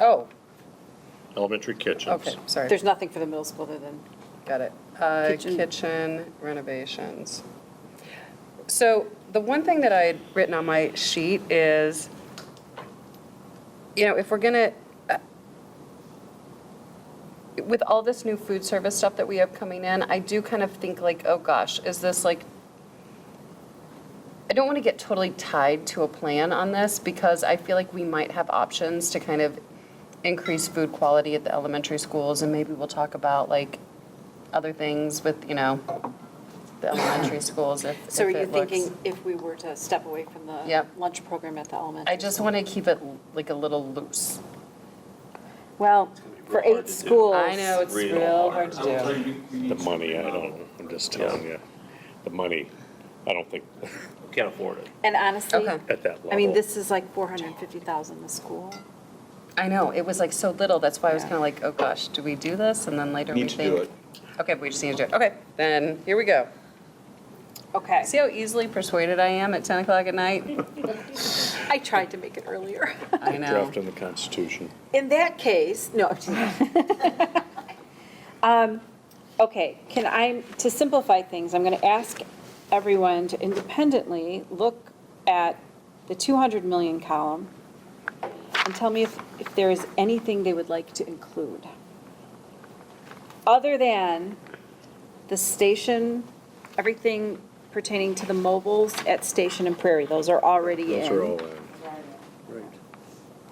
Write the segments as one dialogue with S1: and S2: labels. S1: Oh,
S2: elementary kitchens.
S1: okay, sorry,
S3: There's nothing for the middle school other than,
S1: got it. Uh,
S3: Kitchen.
S1: Kitchen renovations. So the one thing that I had written on my sheet is, you know, if we're going to, with all this new food service stuff that we have coming in, I do kind of think like, oh gosh, is this like I don't want to get totally tied to a plan on this because I feel like we might have options to kind of increase food quality at the elementary schools and maybe we'll talk about like other things with, you know, the elementary schools if,
S3: so are
S1: if
S3: you
S1: it looks-
S3: thinking if we were to step away from the
S1: Yep.
S3: lunch program at the elementary?
S1: I just want to keep it like a little loose.
S3: school? Well, for
S2: hard to
S3: eight
S2: do.
S3: schools.
S1: I know, it's
S2: Real
S1: real hard to
S4: I'll tell
S1: do.
S4: you, we need
S2: The
S4: to-
S2: money, I don't, I'm just telling you, the money, I don't think, can't afford it
S3: And honestly,
S1: Okay.
S2: at that level.
S3: I mean, this is like 450,000 a school.
S1: I know, it was like so little, that's why I was
S3: Yeah.
S1: kind of like, oh gosh, do we do this? And then later we
S4: Need to do
S1: think.
S4: it.
S1: Okay, we just need to do it. Okay, then here we go.
S3: Okay.
S1: See how easily persuaded I am at 10 o'clock at night?
S3: I tried to make it earlier.
S1: I know.
S2: Drafting the Constitution.
S3: In that case, no. I'm just- Um, Okay, can I, to simplify things, I'm going to ask everyone to independently look at the 200 million column and tell me if, if there is anything they would like to include. Other than the station, everything pertaining to the mobiles at Station and Prairie, those are already in.
S2: Those are all in.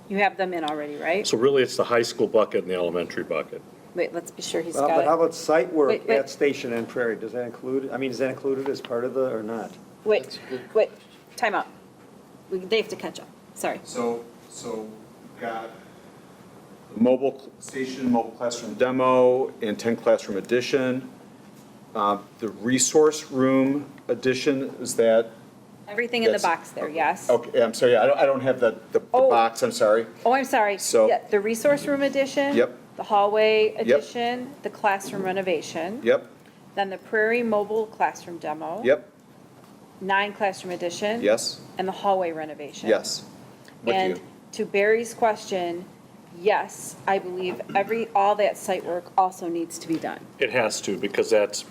S3: You have them in already, right?
S2: So really, it's the high school bucket and the elementary bucket.
S3: Wait, let's be sure he's
S5: Well, but how
S3: got it.
S5: about site
S3: Wait,
S5: work
S3: wait.
S5: at Station and Prairie? Does that include, I mean, is that included as part of the, or not?
S3: Wait, wait, time out. We- They have to catch up, sorry.
S4: So, so we've got mobile cl- station, mobile classroom demo, and 10 classroom addition. Uh, The resource room addition, is that,
S3: Everything in the
S4: That's-
S3: box there, yes?
S4: okay, I'm sorry, I don't, I don't have the, the the
S3: Oh.
S4: box, I'm sorry.
S3: Oh, I'm sorry.
S4: So-
S3: Yeah, The resource room addition.
S4: Yep.
S3: The hallway addition, the classroom renovation.
S4: Yep,
S3: Then the Prairie Mobile classroom demo.
S4: yep,
S3: Nine classroom addition.
S4: yes,
S3: And the hallway renovation.
S4: yes. With
S3: And
S4: you.
S3: to Barry's question, yes, I believe every, all that site work also needs to be done.
S2: It has to, because that's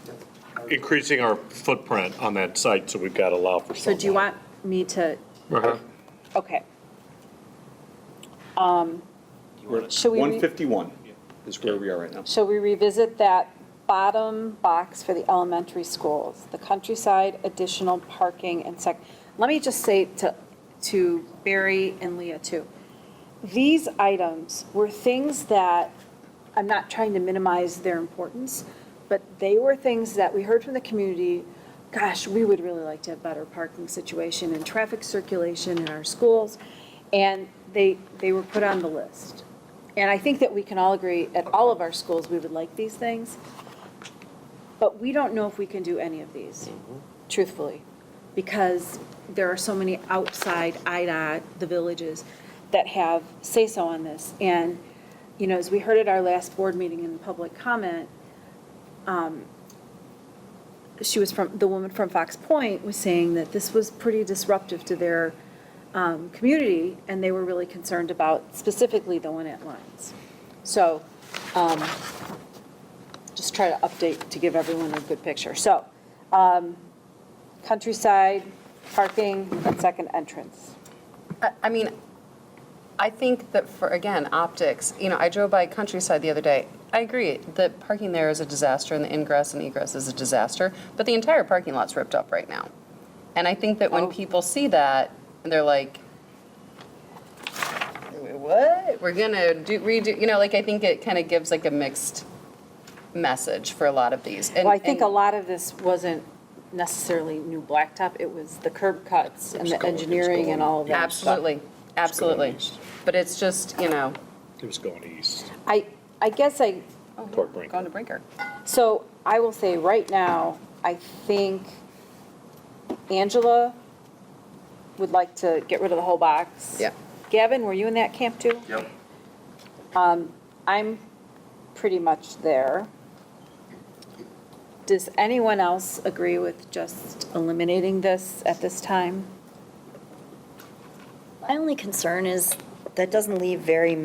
S2: increasing our footprint on that site, so we've got to allow for
S3: So
S2: some.
S3: do you want me to,
S2: Uh-huh.
S3: okay.
S4: We're at
S3: Should we re-
S4: 151 is where we are right now.
S3: Shall we revisit that bottom box for the elementary schools, the countryside additional parking and sec? Let me just say to, to Barry and Leah too, these items were things that, I'm not trying to minimize their importance, but they were things that we heard from the community, gosh, we would really like to have better parking situation and traffic circulation in our schools. And they, they were put on the list. And I think that we can all agree, at all of our schools, we would like these things. But we don't know if we can do any of these, truthfully, because there are so many outside IDOT, the villages, that have say-so on this. And, you know, as we heard at our last board meeting in public comment, um, she was from, the woman from Fox Point was saying that this was pretty disruptive to their um, community, and they were really concerned about specifically the one at Lyons. So um, just try to update to give everyone a good picture. So um, countryside, parking, and second entrance.
S1: I- I mean, I think that for, again, optics, you know, I drove by Countryside the other day. I agree, the parking there is a disaster and the ingress and egress is a disaster, but the entire parking lot's ripped up right now. And I think
S3: Oh.
S1: that when people see that, they're like, what? We're gonna do, redo, you know, like, I think it kind of gives like a mixed message for a lot of these. And-
S3: Well, I think a
S1: and-
S3: lot of this wasn't necessarily new blacktop, it was the curb cuts and
S2: It's
S3: the
S2: going- it's
S3: engineering
S2: going-
S3: and all of that. stuff.
S1: Absolutely, absolutely.
S2: east.
S1: But it's just, you know,
S2: It was going east
S3: I, I guess I,
S2: toward
S1: going
S2: Brinkley.
S1: to Brinker.
S3: So I will say right now, I think Angela would like to get rid of the whole box.
S1: Yeah.
S3: Gavin, were you in that camp too? Um,
S4: Yep.
S3: I'm pretty much there. Does anyone else agree with just eliminating this at this time?
S6: My only concern is that doesn't leave very